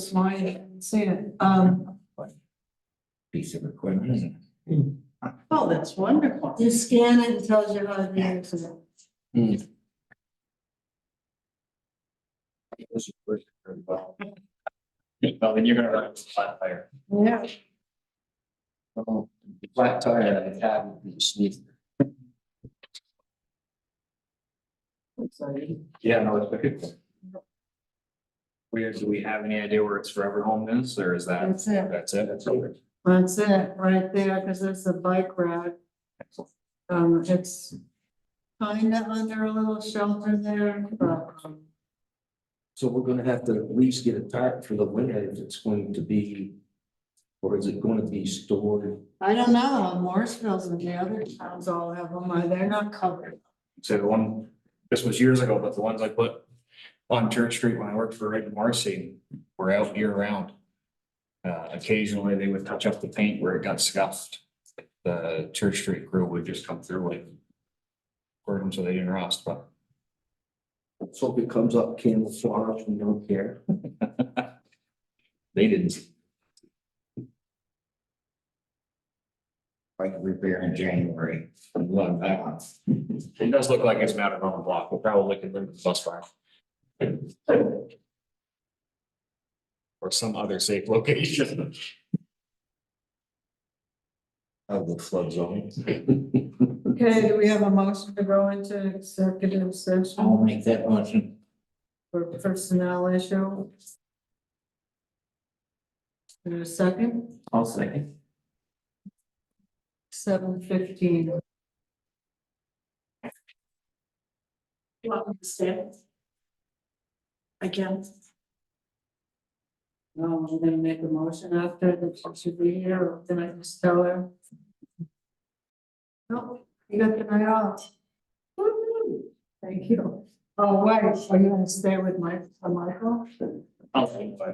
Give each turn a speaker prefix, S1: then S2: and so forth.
S1: reason why I didn't say it, um,
S2: piece of equipment.
S1: oh, that's wonderful.
S3: You scan it and tells you how to use it.
S2: Well, then you're gonna run into a flat tire.
S1: Yeah.
S2: Oh, the Flat tire that I had would be sneezing. Yeah, no, it's good. Weird, do we have any idea where its forever home is, or is that,
S3: That's it.
S2: that's it, that's over?
S3: That's it, right there, because it's a bike rack. Um, it's kind of under a little shelter there, but um,
S4: So we're gonna have to at least get a tarp for the winter if it's going to be. Or is it gonna be stored?
S3: I don't know, Morrisville's and the other towns all have them, or they're not covered.
S2: So the one, this was years ago, but the ones I put on Church Street when I worked for Red and Marcy were out year round. Uh, occasionally they would touch up the paint where it got scuffed. The Church Street crew would just come through and burn them so they didn't rust, but
S4: So if it comes up camouflage, we don't care.
S2: they didn't. Like repair in January. Love that one. It does look like it's mounted on a block. We'll probably can limit the bus fire. Or some other safe location.
S4: Out of the flood zone.
S3: Okay, do we have a motion to go into executive
S4: I'll
S3: session
S4: make that motion.
S3: for personnel issue? In a second,
S4: I'll second.
S3: seven fifteen. Welcome to stand. Again. No, Um, I'm gonna make a motion after the should be here, or can I just tell her? No, you got the night off. Woo-hoo. Thank you. Oh, wait, are you gonna stay with Mike, Michael?
S2: I'll think about it.